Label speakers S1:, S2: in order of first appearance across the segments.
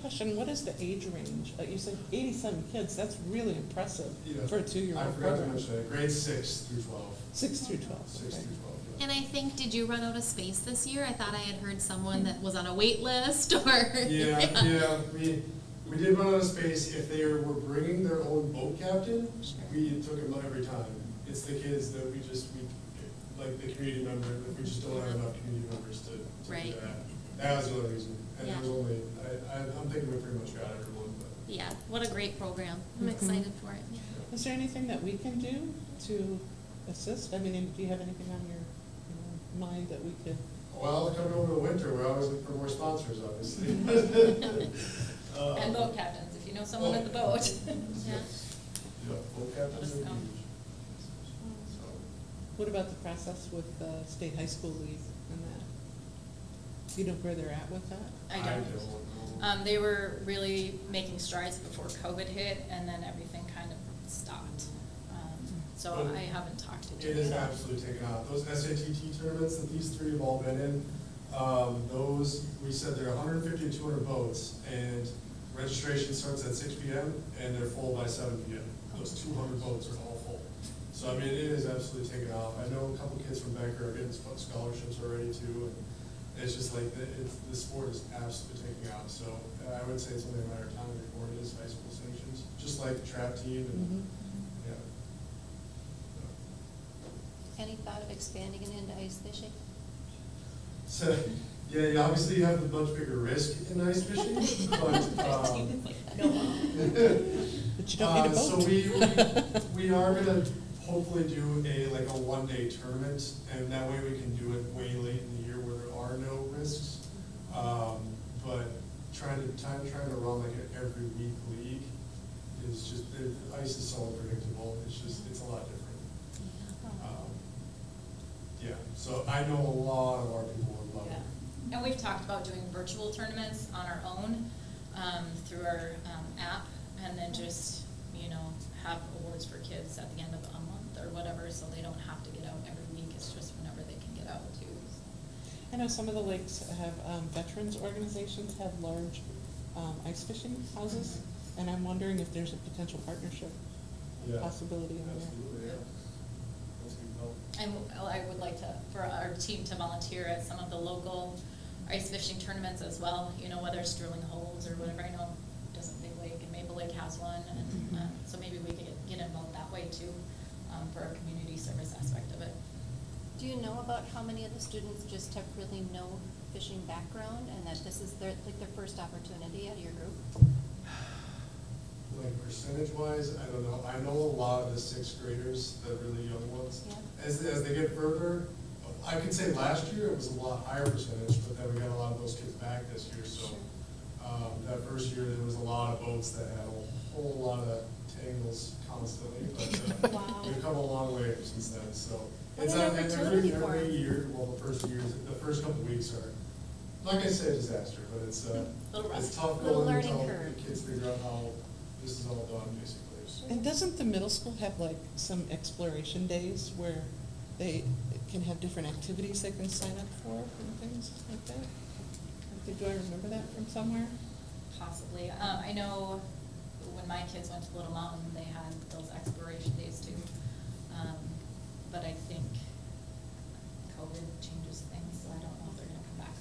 S1: Question, what is the age range? Like you said, eighty-seven kids, that's really impressive
S2: Yeah.
S1: for a two-year-old
S2: I forgot to
S1: program.
S2: mention, grade six through twelve.
S1: Six through twelve,
S2: Six
S1: okay.
S2: through twelve, yeah.
S3: And I think, did you run out of space this year? I thought I had heard someone that was on a wait list or.
S2: Yeah, yeah, we, we did run out of space, if they were bringing their own boat captain, we took them every time. It's the kids that we just, we, like the community member, that we just don't have enough community members to, to do
S3: Right.
S2: that. That was the only reason, and there was
S3: Yeah.
S2: only, I, I, I'm thinking we pretty much got everyone, but.
S3: Yeah, what a great program. I'm
S1: Mhm.
S3: excited for it. Yeah.
S1: Is there anything that we can do to assist? I mean, do you have anything on your you know, mind that we could?
S2: Well, coming over the winter, we're always looking for more sponsors, obviously. Uh,
S4: And boat captains, if you know someone
S2: oh.
S4: at the boat.
S2: Yes. Yeah, boat captains are
S4: Just
S2: huge.
S4: come.
S2: So.
S1: What about the process with the state high school league and that? Do you know where they're at with that?
S4: I don't.
S2: know.
S4: Um, they were really making strides before COVID hit and then everything kind of stopped. Um, So
S2: But
S4: I haven't talked to
S2: It
S4: Jim.
S2: is absolutely taken off. Those SATT tournaments that these three have all been in, um, those, we said they're 150 to 200 boats, and registration starts at 6 PM, and they're full by 7 PM. Those 200 boats are all full. So, I mean, it is absolutely taken off. I know a couple kids from Becker are getting sp- scholarships already too, and it's just like, the- it's, the sport is absolutely taking off. So uh, I would say it's only a matter of time before it is high school sanctions, just like the trap team
S1: Mm-hmm.
S2: and, yeah. So.
S5: Any thought of expanding it into ice fishing?
S2: So, yeah, you obviously have a much bigger risk in ice fishing, but, um,
S1: But you don't need a
S2: uh, So
S1: boat.
S2: we, we, we are gonna hopefully do a, like a one-day tournament, and that way we can do it way late in the year where there are no risks. Um, but trying to, time, trying to run like an every week league is just, the ice is so unpredictable, it's just, it's a lot different. Um, Yeah, so I know a lot of our people would love
S4: Yeah.
S2: it.
S4: And we've talked about doing virtual tournaments on our own, um, through our, um, app, and then just, you know, have awards for kids at the end of a month or whatever, so they don't have to get out every week, it's just whenever they can get out too.
S1: I know some of the lakes have, um, veterans organizations have large, um, ice fishing houses, and I'm wondering if there's a potential partnership
S2: Yeah.
S1: possibility in there.
S2: Absolutely, yeah. That's a good help.
S4: And I would like to, for our team to volunteer at some of the local ice fishing tournaments as well, you know, whether it's drilling holes or whatever, I know doesn't Big Lake and Maple Lake has one, and, uh, so maybe we could get- get involved that way too, um, for our community service aspect of it.
S5: Do you know about how many of the students just have really no fishing background and that this is their, like their first opportunity out of your group?
S2: Like percentage wise, I don't know, I know a lot of the sixth graders, the really young ones.
S5: Yeah.
S2: As, as they get further, I could say last year it was a lot higher percentage, but then we got a lot of those kids back this year, so. Um, that first year, there was a lot of boats that had a whole lot of tangles constantly, but uh,
S5: Wow.
S2: we've come a long way since then, so.
S5: What
S2: It's
S5: an
S2: not, and every,
S5: opportunity for
S2: every
S5: 'em.
S2: year, well, the first years, the first couple weeks are, like I said, disaster, but it's, uh,
S4: Little rough.
S2: it's tough
S5: Little
S2: going
S5: learning
S2: until the
S5: curve.
S2: kids figure out how this is all done, basically.
S1: And doesn't the middle school have like some exploration days where they can have different activities they can sign up for and things like that? I think- Do I remember that from somewhere?
S4: Possibly. Um, I know when my kids went to Little Mountain, they had those exploration days too. Um, but I think COVID changes things, so I don't know if they're gonna come back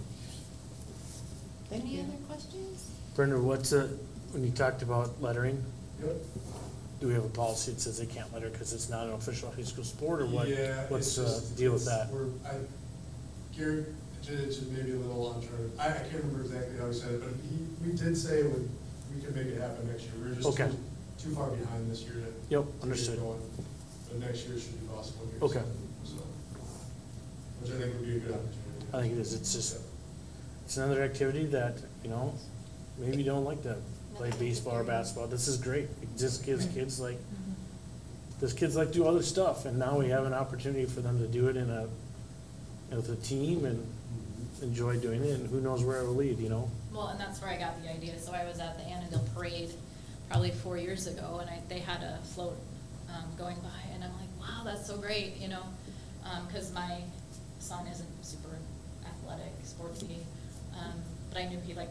S4: or not.
S1: Thank you.
S5: Any other questions?
S6: Brenda, what's a, when you talked about lettering,
S2: Yep.
S6: do we have a policy that says they can't letter because it's not an official high school sport or what?
S2: Yeah, it's
S6: What's the
S2: just-
S6: deal with
S2: it's-
S6: that?
S2: We're, I, Gary, it's maybe a little uncharted, I, I can't remember exactly how he said it, but he, we did say we, we could make it happen next year, we were just
S6: Okay.
S2: too, too far behind this year to. to
S6: Yep,
S2: get
S6: understood.
S2: going. But next year should be possible. here,
S6: Okay.
S2: So, which I think would be a good opportunity.
S6: I think it is. It's just- It's another activity that, you know, maybe you don't like to play baseball or basketball. This is great. It just gives kids like, those kids like do other stuff and now we have an opportunity for them to do it in a, with a team and
S2: Mm-hmm.
S6: enjoy doing it and who knows where it will lead, you know?
S4: Well, and that's where I got the idea. So I was at the Annandale Parade probably four years ago, and I, they had a float, um, going by, and I'm like, wow, that's so great, you know? Um 'cause cause my son isn't super athletic, sportsy, um, but I knew he liked